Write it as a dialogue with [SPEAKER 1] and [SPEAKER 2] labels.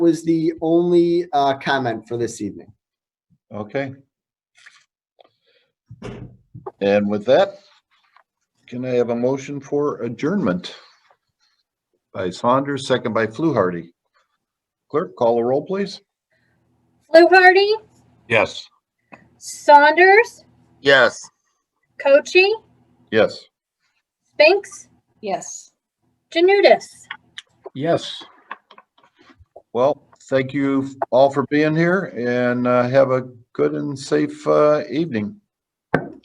[SPEAKER 1] was the only uh, comment for this evening.
[SPEAKER 2] Okay. And with that, can I have a motion for adjournment? By Saunders, second by Fluharty. Clerk, call a roll, please.
[SPEAKER 3] Fluharty,
[SPEAKER 2] Yes.
[SPEAKER 3] Saunders,
[SPEAKER 4] Yes.
[SPEAKER 3] Cochi,
[SPEAKER 2] Yes.
[SPEAKER 3] Spinks,
[SPEAKER 5] Yes.
[SPEAKER 3] Janudis.
[SPEAKER 2] Yes. Well, thank you all for being here and uh, have a good and safe uh, evening.